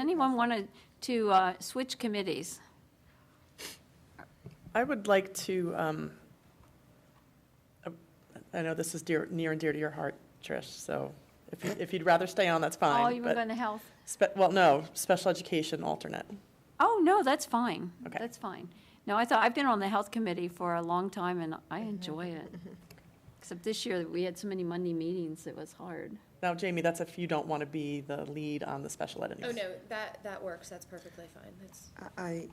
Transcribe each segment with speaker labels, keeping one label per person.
Speaker 1: anyone want to, to uh, switch committees?
Speaker 2: I would like to, um, uh, I know this is dear, near and dear to your heart, Trish, so if, you- if you'd rather stay on, that's
Speaker 1: Oh,
Speaker 2: fine.
Speaker 1: you were
Speaker 2: but
Speaker 1: going to health?
Speaker 2: spe- Well, no, special education alternate.
Speaker 1: Oh, no, that's fine.
Speaker 2: Okay.
Speaker 1: That's fine. No, I thought, I've been on the health committee for a long time and I enjoy it. Except this year, we had so many Monday meetings, it was hard.
Speaker 2: Now, Jamie, that's if you don't want to be the lead on the special ed.
Speaker 3: Oh, no, that, that works, that's perfectly fine, that's,
Speaker 4: I, I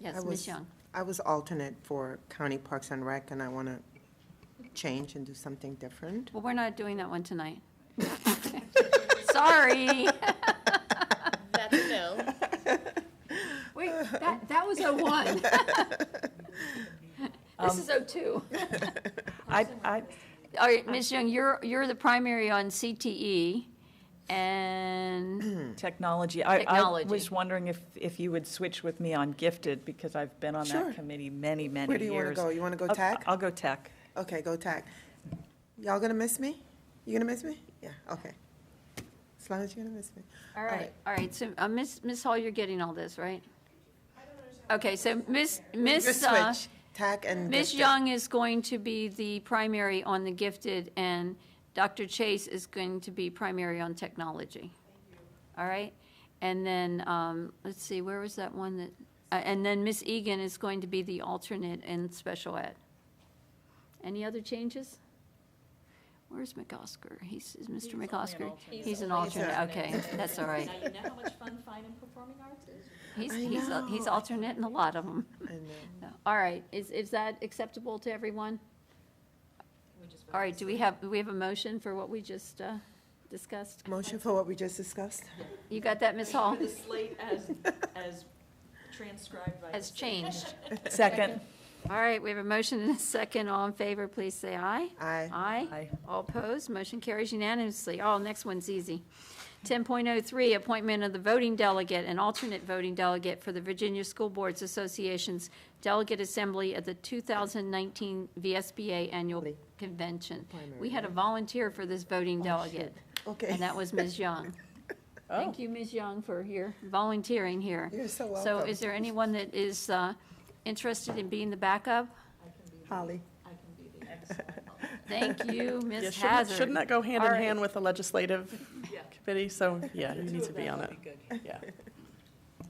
Speaker 1: Yes, Ms.
Speaker 4: was-
Speaker 1: Young.
Speaker 4: I was alternate for County Parks and Rec, and I want to change and do something different.
Speaker 1: Well, we're not doing that one tonight. Sorry.
Speaker 3: that's a no.
Speaker 1: Wait, that, that was oh one. This
Speaker 2: Um,
Speaker 1: is oh two.
Speaker 2: I, I,
Speaker 1: All right, Ms. Young, you're, you're the primary on CTE and,
Speaker 5: Technology. I, I was
Speaker 1: Technology.
Speaker 5: wondering if, if you would switch with me on gifted, because I've been on
Speaker 4: Sure.
Speaker 5: that committee many, many
Speaker 4: Where do
Speaker 5: years.
Speaker 4: you want to go? You want to go
Speaker 5: I'll-
Speaker 4: tech?
Speaker 5: I'll go tech.
Speaker 4: Okay, go tech. Y'all gonna miss me? You gonna miss me? Yeah, okay. As long as you're gonna miss me.
Speaker 1: all right, all right, so, uh, Ms., Ms. Hall, you're getting all this, right? Okay, so Ms., Ms.,
Speaker 4: Just
Speaker 1: uh,
Speaker 4: switch, tech and.
Speaker 1: Ms.
Speaker 4: gifted.
Speaker 1: Young is going to be the primary on the gifted and Dr. Chase is going to be primary on technology. All right, and then, um, let's see, where was that one that, uh, and then Ms. Egan is going to be the alternate in special ed. Any other changes? Where's McCosker? He's, is Mr. McCosker? He's an alternate, okay, that's all right.
Speaker 6: Now you know how much fun fine and performing arts is.
Speaker 1: He's,
Speaker 4: I
Speaker 1: he's, a- he's
Speaker 4: know.
Speaker 1: alternate in a lot of them.
Speaker 4: I know.
Speaker 1: All right, is, is that acceptable to everyone? All right, do we have, do we have a motion for what we just uh, discussed?
Speaker 4: Motion for what we just discussed?
Speaker 1: You got that, Ms. Hall?
Speaker 6: The slate as, as transcribed by.
Speaker 1: Has changed.
Speaker 5: Second.
Speaker 1: All right, we have a motion and a second. All in favor, please say aye.
Speaker 4: Aye.
Speaker 1: Aye.
Speaker 5: Aye.
Speaker 1: All opposed, motion carries unanimously. Oh, next one's easy. 10.03, appointment of the voting delegate and alternate voting delegate for the Virginia School Boards Association's Delegate Assembly at the 2019 VSBA Annual
Speaker 4: Lee.
Speaker 1: Convention.
Speaker 4: Primary,
Speaker 1: We had a volunteer for this voting delegate,
Speaker 4: Okay.
Speaker 1: Uh, and that was Ms. Young.
Speaker 2: Oh,
Speaker 1: Thank you, Ms. Young, for your volunteering here.
Speaker 4: You're so
Speaker 1: So
Speaker 4: welcome.
Speaker 1: is there anyone that is uh, interested in being the backup?
Speaker 4: Holly.
Speaker 1: Thank you,
Speaker 2: yeah,
Speaker 1: Ms.
Speaker 2: shouldn't,
Speaker 1: Hazard.
Speaker 2: shouldn't that go hand in
Speaker 1: All right.
Speaker 2: hand with the legislative committee? So, yeah, you need to be on it. Yeah.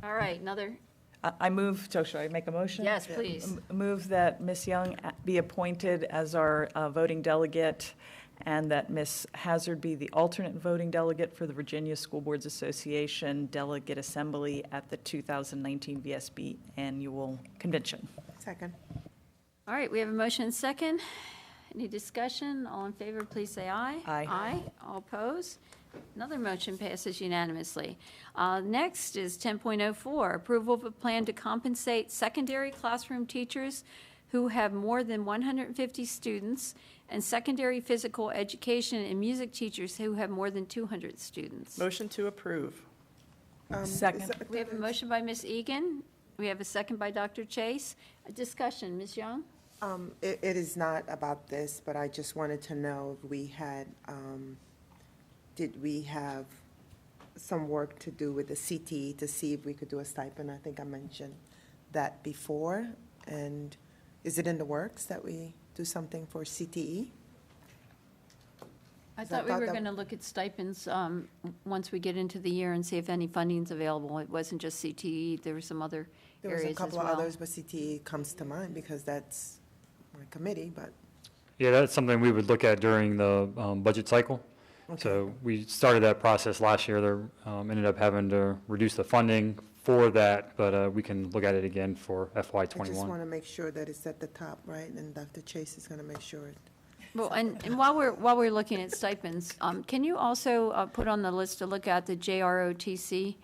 Speaker 1: All right, another,
Speaker 5: I I move, so should I make a motion?
Speaker 1: yes, please.
Speaker 5: M- Move that Ms. Young a- be appointed as our uh, voting delegate, and that Ms. Hazard be the alternate voting delegate for the Virginia School Boards Association Delegate Assembly at the 2019 VSB Annual Convention.
Speaker 4: Second.
Speaker 1: All right, we have a motion and second. Any discussion? All in favor, please say aye.
Speaker 5: Aye.
Speaker 1: Aye. All opposed? Another motion passes unanimously. Uh, Next is 10.04, approval of a plan to compensate secondary classroom teachers who have more than 150 students and secondary physical education and music teachers who have more than 200 students.
Speaker 2: Motion to approve.
Speaker 4: Um,
Speaker 5: Second.
Speaker 4: is that-
Speaker 1: We have a motion by Ms. Egan. We have a second by Dr. Chase. A Discussion, Ms. Young?
Speaker 4: Um, it, it is not about this, but I just wanted to know if we had, um, did we have some work to do with the CTE to see if we could do a stipend? I think I mentioned that before. And is it in the works that we do something for E? CTE?
Speaker 1: I
Speaker 4: Is that
Speaker 1: thought we
Speaker 4: about
Speaker 1: were
Speaker 4: the-
Speaker 1: going to look at stipends um, w- once we get into the year and see if any funding's available. It wasn't just CTE, there were some other
Speaker 4: There was
Speaker 1: areas
Speaker 4: a
Speaker 1: as well.
Speaker 4: couple of others, but CTE comes to mind because that's my committee, but,
Speaker 7: Yeah, that's something we would look at during the um, budget cycle. So we started that process last year, there um, ended up having to reduce the funding for that, but uh, we can look at it again for FY
Speaker 4: I just want
Speaker 7: '21.
Speaker 4: to make sure that it's at the top, right? And Dr. Chase is going to make sure. it-
Speaker 1: Well, and, and while we're, while we're looking at stipends, um, can you also uh, put on the list to look at the JROTC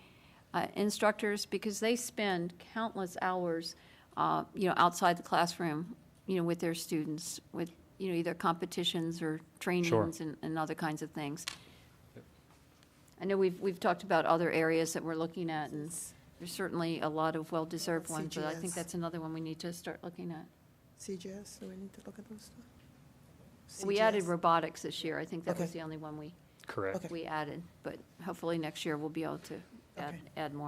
Speaker 1: uh, instructors? Because they spend countless hours, uh, you know, outside the classroom, you know, with their students, with, you know, either competitions or trainings and, and other kinds of things. I know we've, we've talked about other areas that we're looking at, and there's certainly a lot of well-deserved ones, but I think
Speaker 4: CGS.
Speaker 1: that's another one we need to start looking at.
Speaker 4: CGS, do we need to look at those? stuff?
Speaker 1: We added
Speaker 4: CGS?
Speaker 1: robotics this year. I think that was
Speaker 4: Okay.
Speaker 1: the only one we
Speaker 7: Correct.
Speaker 4: Okay.
Speaker 1: we added, but hopefully next year we'll be able to add,
Speaker 4: Okay.
Speaker 1: add more.